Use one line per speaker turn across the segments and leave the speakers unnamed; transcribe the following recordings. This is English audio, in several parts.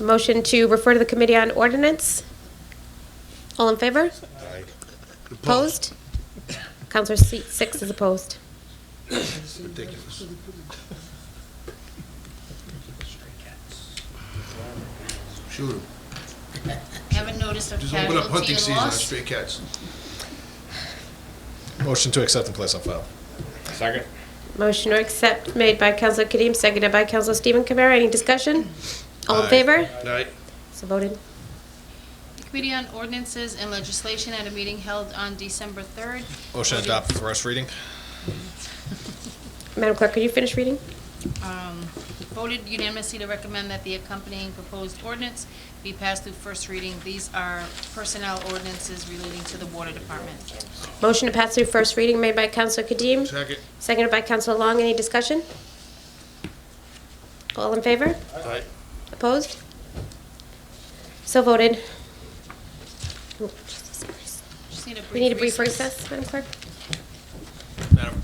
Motion to refer to the Committee on Ordinance. All in favor? Opposed? Counselor seat six is opposed.
Ridiculous. Shoot 'em.
Have a notice of
Just open up
casualty
hunting
and
season on
loss.
stray cats.
Motion to accept and place on file.
Second?
Motion to accept made by Counselor Kadeem, seconded by Counselor Stephen Kamara. Any discussion? All in
Aye.
favor?
Aye.
So voted.
Committee on Ordinances and Legislation at a meeting held on December 3rd.
Motion to adopt first reading.
Madam Clerk, could you finish reading?
um, Voted unanimously to recommend that the accompanying proposed ordinance be passed through first reading. These are personnel ordinances relating to the Water Department.
Motion to pass through first reading made by Counselor Kadeem,
Second.
seconded by Counselor Long. Any discussion? All in favor?
Aye.
Opposed? So voted. Oh,
Just need a brief
We need a brief recess, Madam Clerk.
Madam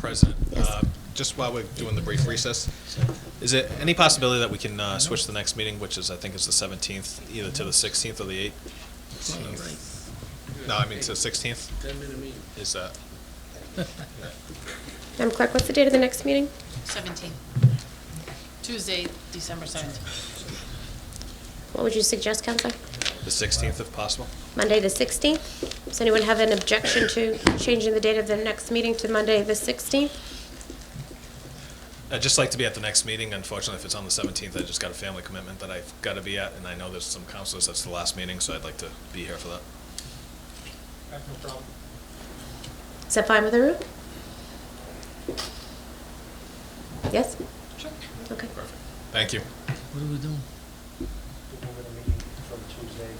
President, uh, just while we're doing the brief recess, is it any possibility that we can uh, switch the next meeting, which is, I think is the 17th, either to the 16th or the 8th? No, I mean to the 16th? 10-minute meeting. Is that,
Madam Clerk, what's the date of the next meeting?
17. Tuesday, December 17th.
What would you suggest, Counselor?
the 16th if possible?
Monday, the 16th? Does anyone have an objection to changing the date of the next meeting to Monday, the 16th?
I'd just like to be at the next meeting. Unfortunately, if it's on the 17th, I just got a family commitment that I've got to be at, and I know there's some counselors, that's the last meeting, so I'd like to be here for that.
Is that fine with the room? Yes?
Sure.
Okay.
Thank you.
What are we doing?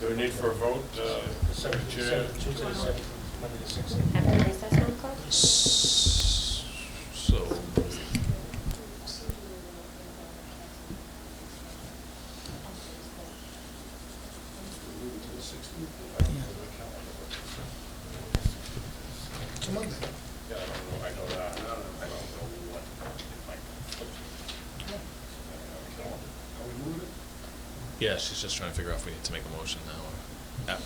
Do we need for a vote? uh, Chair?
After recess, Madam Clerk?
S- So,
Yeah, I don't know, I know that. I don't know what it might Uh,
yeah, she's just trying to figure out if we need to make a motion now. or- yeah.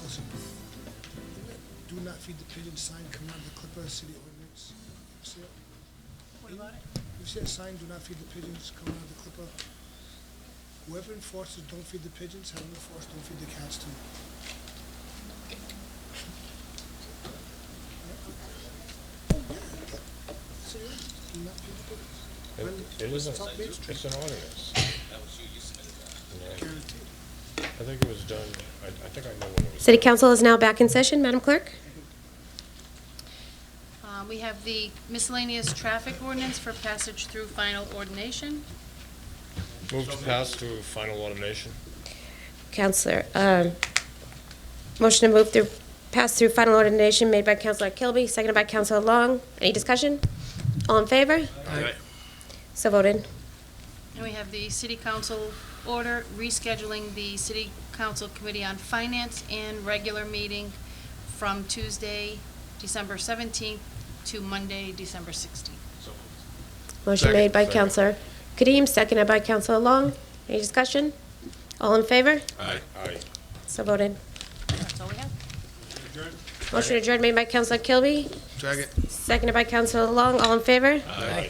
Allison, do not feed the pigeon sign come out of the Clipper City ordinance. You see it?
What about it?
You see that sign, do not feed the pigeons come out of the Clipper? Whoever enforces don't feed the pigeons, have them enforce don't feed the cats too. See it? Do not feed the pigeons.
It isn't, it's an ordinance.
Guaranteed.
I think it was done, I I think I know when it was.
City Council is now back in session, Madam Clerk?
Uh, We have the miscellaneous traffic ordinance for passage through final ordination.
Move to pass to final ordination.
Counselor, um, motion to move through, pass through final ordination made by Counselor Kilby, seconded by Counselor Long. Any discussion? All in favor?
Aye.
So voted.
And we have the City Council order rescheduling the City Council Committee on Finance and regular meeting from Tuesday, December 17th to Monday, December 16th.
Motion
Second.
made by
Second.
Counselor Kadeem, seconded by Counselor Long. Any discussion? All in favor?
Aye.
Aye.
So voted.
That's all we have.
Motion adjourned made by Counselor Kilby,
Second.
seconded by Counselor Long. All in favor?
Aye.